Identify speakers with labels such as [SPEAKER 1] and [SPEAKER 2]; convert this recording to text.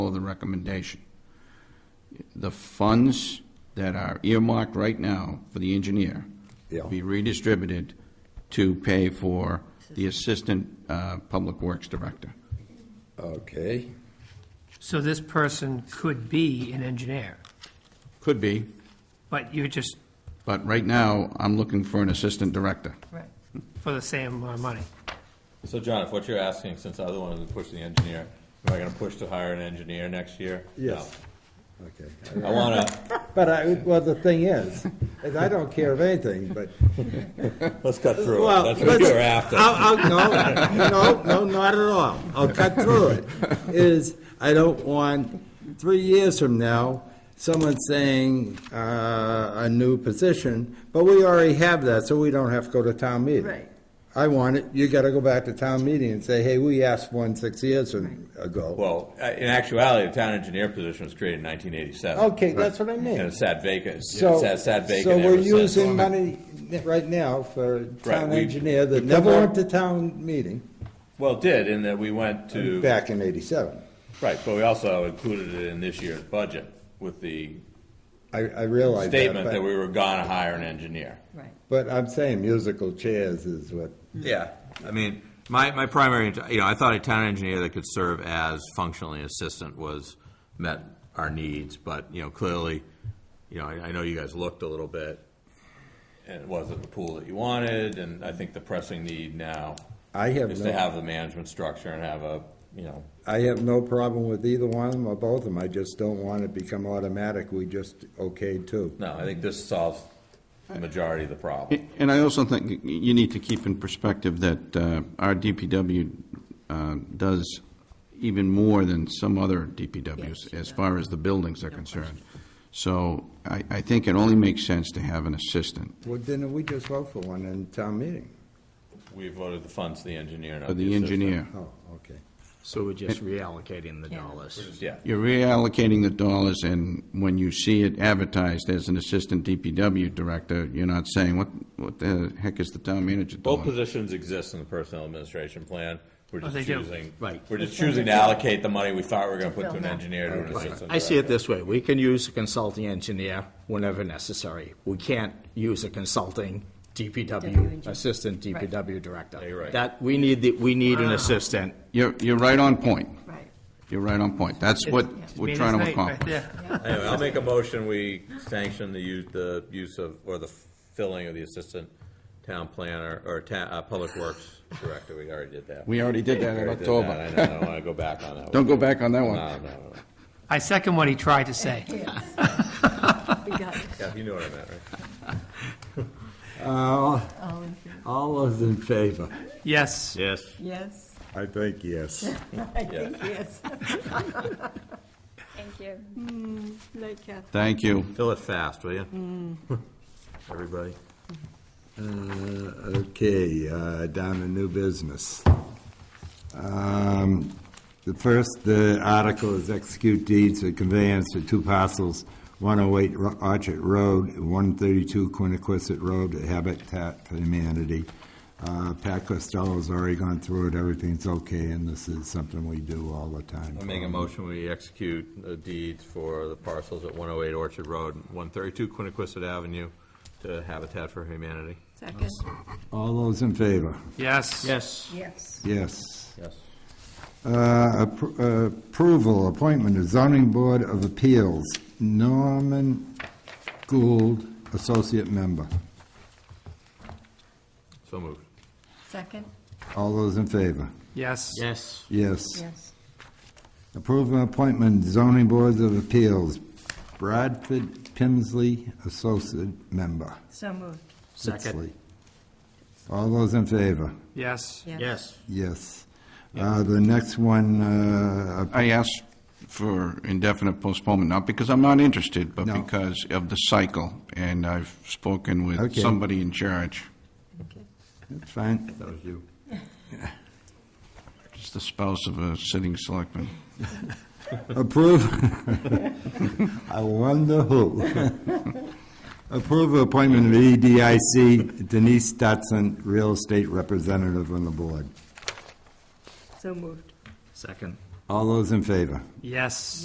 [SPEAKER 1] follow the recommendation. The funds that are earmarked right now for the engineer
[SPEAKER 2] Yeah.
[SPEAKER 1] be redistributed to pay for the Assistant uh, Public Works Director.
[SPEAKER 2] Okay,
[SPEAKER 3] So this person could be an engineer,
[SPEAKER 1] Could be,
[SPEAKER 3] but you're just
[SPEAKER 1] but right now, I'm looking for an Assistant Director.
[SPEAKER 3] for the same amount of money.
[SPEAKER 4] So John, if what you're asking, since I other one is pushing the engineer, am I gonna push to hire an engineer next year?
[SPEAKER 5] Yes.
[SPEAKER 2] okay.
[SPEAKER 4] No. I wanna,
[SPEAKER 5] But I, well, the thing is, is I don't care of anything, but,
[SPEAKER 4] let's cut through it,
[SPEAKER 5] well.
[SPEAKER 4] that's what
[SPEAKER 5] let's-
[SPEAKER 4] you're after.
[SPEAKER 5] I'll, I'll, no, no, no, not at all. I'll cut through it. Is, I don't want, three years from now, someone saying, uh, a new position, but we already have that, so we don't have to go to town meeting.
[SPEAKER 6] Right.
[SPEAKER 5] I want it, you gotta go back to town meeting and say, hey, we asked one six years ago.
[SPEAKER 4] Well, uh, in actuality, the town engineer position was created in nineteen eighty-seven.
[SPEAKER 5] Okay, that's what I mean.
[SPEAKER 4] And it sat vacant,
[SPEAKER 5] So,
[SPEAKER 4] it sat, sat
[SPEAKER 5] so
[SPEAKER 4] vacant
[SPEAKER 5] we're
[SPEAKER 4] ever since.
[SPEAKER 5] using money right now for town
[SPEAKER 4] we-
[SPEAKER 5] engineer that
[SPEAKER 4] we
[SPEAKER 5] never
[SPEAKER 4] cover-
[SPEAKER 5] went to town meeting
[SPEAKER 4] Well, it did, in that we went to.
[SPEAKER 5] back in eighty-seven.
[SPEAKER 4] Right, but we also included it in this year's budget with the
[SPEAKER 5] I, I realize that,
[SPEAKER 4] statement that
[SPEAKER 5] but,
[SPEAKER 4] we were gonna hire an engineer.
[SPEAKER 6] Right.
[SPEAKER 5] but I'm saying musical chairs is what,
[SPEAKER 4] Yeah, I mean, my, my primary, int- you know, I thought a town engineer that could serve as functionally assistant was, met our needs, but, you know, clearly, you know, I, I know you guys looked a little bit, and it wasn't the pool that you wanted, and I think the pressing need now
[SPEAKER 5] I have
[SPEAKER 4] is to
[SPEAKER 5] no,
[SPEAKER 4] have the management structure and have a, you know,
[SPEAKER 5] I have no problem with either one of them or both of them. I just don't want it become automatic. We just okayed two.
[SPEAKER 4] no, I think this solves the majority of the problem.
[SPEAKER 1] And I also think you need to keep in perspective that uh, our DPW uh, does even more than some other DPWs as far as the buildings are concerned. So I, I think it only makes sense to have an assistant
[SPEAKER 5] Well, then we just vote for one in town meeting.
[SPEAKER 4] We voted the funds to the engineer, not
[SPEAKER 1] for
[SPEAKER 4] the
[SPEAKER 1] the
[SPEAKER 4] assistant.
[SPEAKER 1] engineer.
[SPEAKER 5] Oh, okay.
[SPEAKER 7] So we're just reallocating the
[SPEAKER 6] Yeah.
[SPEAKER 7] dollars.
[SPEAKER 4] Yeah,
[SPEAKER 1] You're reallocating the dollars, and when you see it advertised as an assistant DPW director, you're not saying, what, what the heck is the town manager
[SPEAKER 4] Both
[SPEAKER 1] doing?
[SPEAKER 4] positions exist in the personnel administration plan. We're
[SPEAKER 3] Oh,
[SPEAKER 4] just
[SPEAKER 3] they do.
[SPEAKER 4] choosing.
[SPEAKER 7] Right.
[SPEAKER 4] We're just choosing to allocate the money we thought we were going to put to
[SPEAKER 6] fill
[SPEAKER 4] an
[SPEAKER 6] that.
[SPEAKER 4] engineer to an assistant.
[SPEAKER 7] I see it
[SPEAKER 4] director.
[SPEAKER 7] this way, we can use a consulting engineer whenever necessary. We can't use a consulting DPW,
[SPEAKER 6] engineer.
[SPEAKER 7] assistant DPW director.
[SPEAKER 4] you're right.
[SPEAKER 7] That, we need, the- we need an assistant.
[SPEAKER 1] You're, you're right on point.
[SPEAKER 6] Right.
[SPEAKER 1] You're right on point. That's what we're
[SPEAKER 3] Mean
[SPEAKER 1] trying
[SPEAKER 3] as
[SPEAKER 1] to
[SPEAKER 3] night right
[SPEAKER 1] accomplish.
[SPEAKER 3] there.
[SPEAKER 4] Anyway, I'll make a motion, we sanction the use, the use of, or the filling of the assistant town planner, or ta, uh, public works director. We already did that.
[SPEAKER 1] We already did that in
[SPEAKER 4] Already did that.
[SPEAKER 1] October.
[SPEAKER 4] I know, I don't want to go back on that.
[SPEAKER 1] Don't go
[SPEAKER 4] one.
[SPEAKER 1] back on that one.
[SPEAKER 4] No, no, no.
[SPEAKER 3] I second what he tried to say.
[SPEAKER 6] We got it.
[SPEAKER 4] Yeah, you know what I meant, right?
[SPEAKER 6] All in favor?
[SPEAKER 5] All those in favor?
[SPEAKER 3] Yes,
[SPEAKER 7] Yes.
[SPEAKER 6] Yes.
[SPEAKER 5] I think yes.
[SPEAKER 6] I think yes.
[SPEAKER 8] Thank you.
[SPEAKER 6] Night, Kath.
[SPEAKER 1] Thank you.
[SPEAKER 4] Fill it fast, will you? Everybody.
[SPEAKER 5] Uh, Okay, uh, down to new business. Um, The first uh, article is execute deeds of conveyance to two parcels, 108 Ro- Orchard Road, 132 Quiniquisette Road, to Habitat for Humanity. Uh, Pat Costello's already gone through it, everything's okay, and this is something we do all the time.
[SPEAKER 4] I make a motion, we execute the deeds for the parcels at 108 Orchard Road, and 132 Quiniquisette Avenue to Habitat for Humanity.
[SPEAKER 6] Second.
[SPEAKER 5] All those in favor?
[SPEAKER 3] yes.
[SPEAKER 7] Yes.
[SPEAKER 6] Yes.
[SPEAKER 5] Yes.
[SPEAKER 4] Yes.
[SPEAKER 5] Uh, appro- uh, Approval, appointment of zoning board of appeals, Norman Gould, associate member.
[SPEAKER 4] So moved.
[SPEAKER 6] Second.
[SPEAKER 5] All those in favor?
[SPEAKER 3] Yes.
[SPEAKER 7] Yes.
[SPEAKER 5] Yes.
[SPEAKER 6] Yes.
[SPEAKER 5] Approval appointment zoning boards of appeals, Bradford Pimsley, associate member.
[SPEAKER 6] So moved.
[SPEAKER 7] Second.
[SPEAKER 5] Pimsley. All those in favor?
[SPEAKER 3] Yes.
[SPEAKER 7] Yes.
[SPEAKER 5] Yes. Uh, The next one, uh,
[SPEAKER 1] I asked for indefinite postponement, not because I'm not interested, but
[SPEAKER 5] No.
[SPEAKER 1] because of the cycle, and I've spoken with
[SPEAKER 5] Okay.
[SPEAKER 1] somebody in charge,
[SPEAKER 6] Okay.
[SPEAKER 5] that's fine. That was you.
[SPEAKER 1] just the spouse of a sitting selectman.
[SPEAKER 5] Approve, I wonder who. Approve appointment of E EDIC Denise Dotson, real estate representative on the board.
[SPEAKER 6] So moved.
[SPEAKER 7] Second.
[SPEAKER 5] All those in favor?
[SPEAKER 3] Yes.